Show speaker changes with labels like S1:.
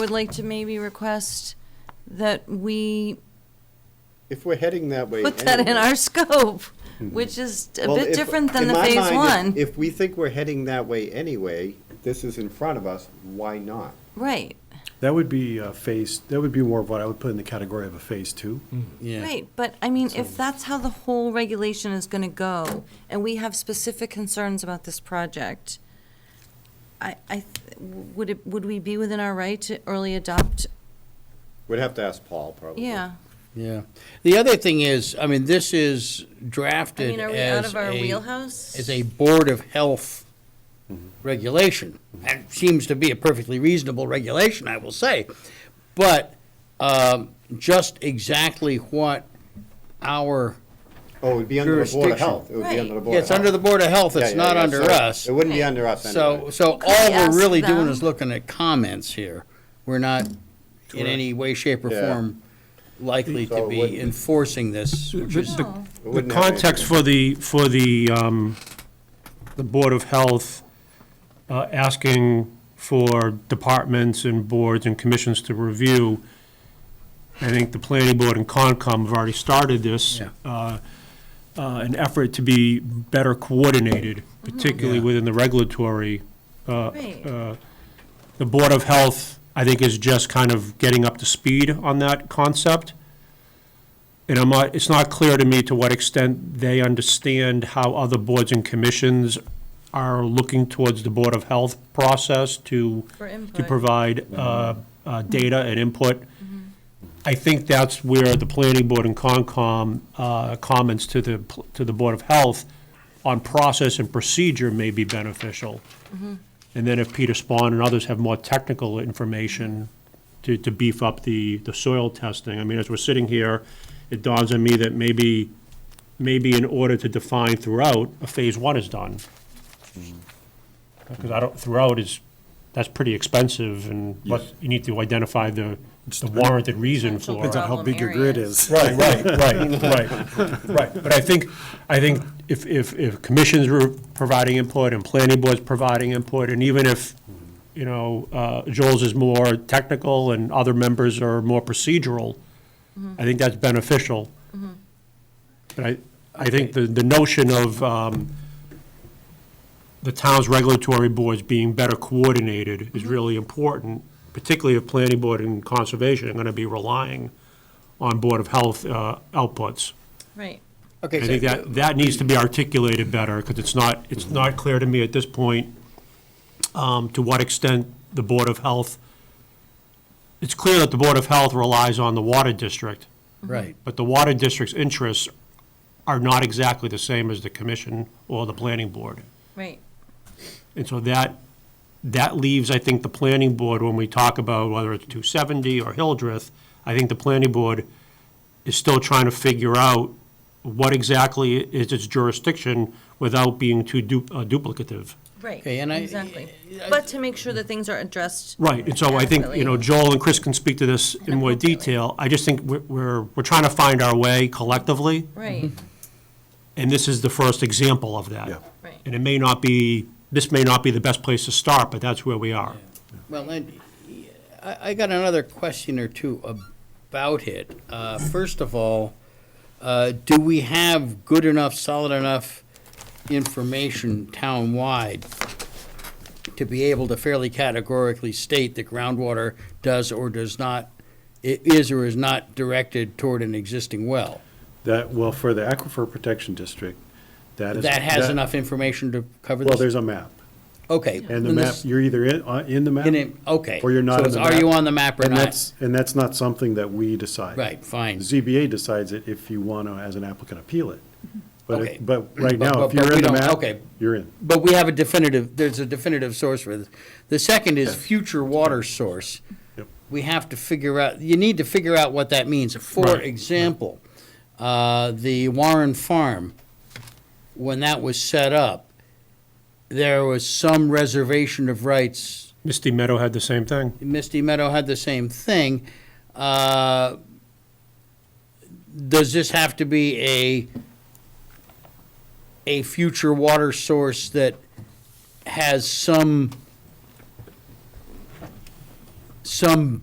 S1: would like to maybe request that we
S2: If we're heading that way.
S1: put that in
S2: anyway- Hmm.
S1: our scope, which is a
S2: Well,
S1: bit
S2: if-
S1: different than
S2: in
S1: the
S2: my
S1: phase
S2: mind, if-
S1: one.
S2: If we think we're heading that way anyway, this is in front of us, why not?
S1: Right,
S3: That would be a phase, that would be more of what I would put in the category of a phase two.
S1: right, but I mean, if that's how the whole regulation is gonna go, and we have specific concerns about this project, I, I, th- would it, would we be within our right to early adopt?
S2: We'd have to ask Paul, probably.
S1: Yeah,
S4: Yeah. The other thing is, I mean, this is
S1: I
S4: drafted
S1: mean, are we out
S4: as
S1: of our
S4: a,
S1: wheelhouse?
S4: as a Board of Health
S2: Mm-hmm.
S4: regulation. And it seems to be a perfectly reasonable regulation, I will say. But um, just exactly what our,
S2: Oh, it'd be under the Board of
S4: Jurisdiction.
S2: Health. It would be under the
S1: Right.
S2: Board of Health.
S4: it's under the Board of Health,
S2: Yeah,
S4: it's
S2: yeah,
S4: not
S2: yeah,
S4: under
S2: so
S4: us.
S2: It wouldn't be under us
S4: So,
S2: anyway.
S4: so
S1: Could we
S4: all we're
S1: ask
S4: really doing
S1: them?
S4: is looking at comments here. We're not in any way, shape, or
S2: Yeah.
S4: form likely
S2: So
S4: to
S2: it
S4: be
S2: wouldn't-
S4: enforcing this, which
S5: The-
S4: is,
S5: the-
S1: No.
S2: It
S5: The
S2: wouldn't have
S5: context for the, for the, um, the Board of Health uh, asking for departments and boards and commissions to review, I think the planning board and Concom have already started this,
S4: Yeah.
S5: uh, uh, an effort to be better coordinated, particularly
S4: Yeah.
S5: within the regulatory uh,
S1: Right.
S5: uh, the Board of Health, I think, is just kind of getting up to speed on that concept. And I'm not, it's not clear to me to what extent they understand how other boards and commissions are looking towards the Board of Health process to,
S1: For
S5: to
S1: input.
S5: provide uh, uh, data and input.
S1: Mm-hmm.
S5: I think that's where the planning board and Concom uh, comments to the, pl- to the Board of Health on process and procedure may be beneficial. And then if Peter Spawn and others have more technical information to, to beef up the, the soil testing, I mean, as we're sitting here, it dawns on me that maybe, maybe in order to define throughout, a phase one is done. Because I don't, throughout is, that's pretty expensive and what, you need to identify the, the warranted reason
S1: Potential
S5: for.
S1: Depends on how
S3: How
S1: Problem
S3: big your grid
S1: areas.
S3: is.
S5: Right, right, right, right, right. But I think, I think if, if, if commissions were providing input and planning boards providing input, and even if, you know, uh, Joel's is more technical and other members are more procedural, I think that's beneficial. But I, I think the, the notion of, um, the town's regulatory boards being better coordinated is really important, particularly if planning board and conservation are gonna be relying on Board of Health uh, outputs.
S1: Right,
S4: okay,
S5: I think
S4: so-
S5: that, that needs to be articulated better, because it's not, it's not clear to me at this point um, to what extent the Board of Health, it's clear that the Board of Health relies on the Water District,
S4: right.
S5: but the Water District's interests are not exactly the same as the commission or the planning board.
S1: right.
S5: And so that, that leaves, I think, the planning board, when we talk about whether it's 270 or Hildreth, I think the planning board is still trying to figure out what exactly is its jurisdiction without being too du- uh, duplicative.
S1: Right,
S4: Okay, and I-
S1: exactly. But to make sure that things are addressed.
S5: Right, and so I think, you know, Joel and Chris can speak to this in more detail. I just think we're, we're, we're trying to find our way collectively,
S1: Right,
S5: and this is the first example of that.
S3: Yeah.
S1: Right.
S5: And it may not be, this may not be the best place to start, but that's where we are.
S4: Well, and I, I got another question or two about it. Uh, first of all, uh, do we have good enough, solid enough information town-wide to be able to fairly categorically state that groundwater does or does not, i- is or is not directed toward an existing well?
S3: That, well, for the Aquifer Protection District, that is.
S4: That has enough information to cover this?
S3: Well, there's a map.
S4: Okay.
S3: And the
S4: then
S3: map,
S4: this-
S3: you're either in, uh, in the map.
S4: In it- okay.
S3: Or you're not in
S4: So
S3: the
S4: it's,
S3: map.
S4: are you on the map or
S3: And
S4: not?
S3: that's- And that's not something that we decide.
S4: Right, fine.
S3: ZBA decides it if you want to, as an applicant, appeal it. But,
S4: Okay.
S3: it- but right
S4: But-
S3: now,
S4: but-
S3: if you're
S4: but
S3: in
S4: we
S3: the
S4: don't-
S3: map,
S4: okay.
S3: you're in.
S4: But we have a definitive, there's a definitive source for this. The second is future water source.
S3: Yep.
S4: We have to figure out, you need to figure out what that means. For
S5: Right.
S4: example, uh, the Warren Farm, when that was set up, there was some reservation of rights.
S5: Misty Meadow had the same thing.
S4: Misty Meadow had the same thing. Uh, Does this have to be a, a future water source that has some, some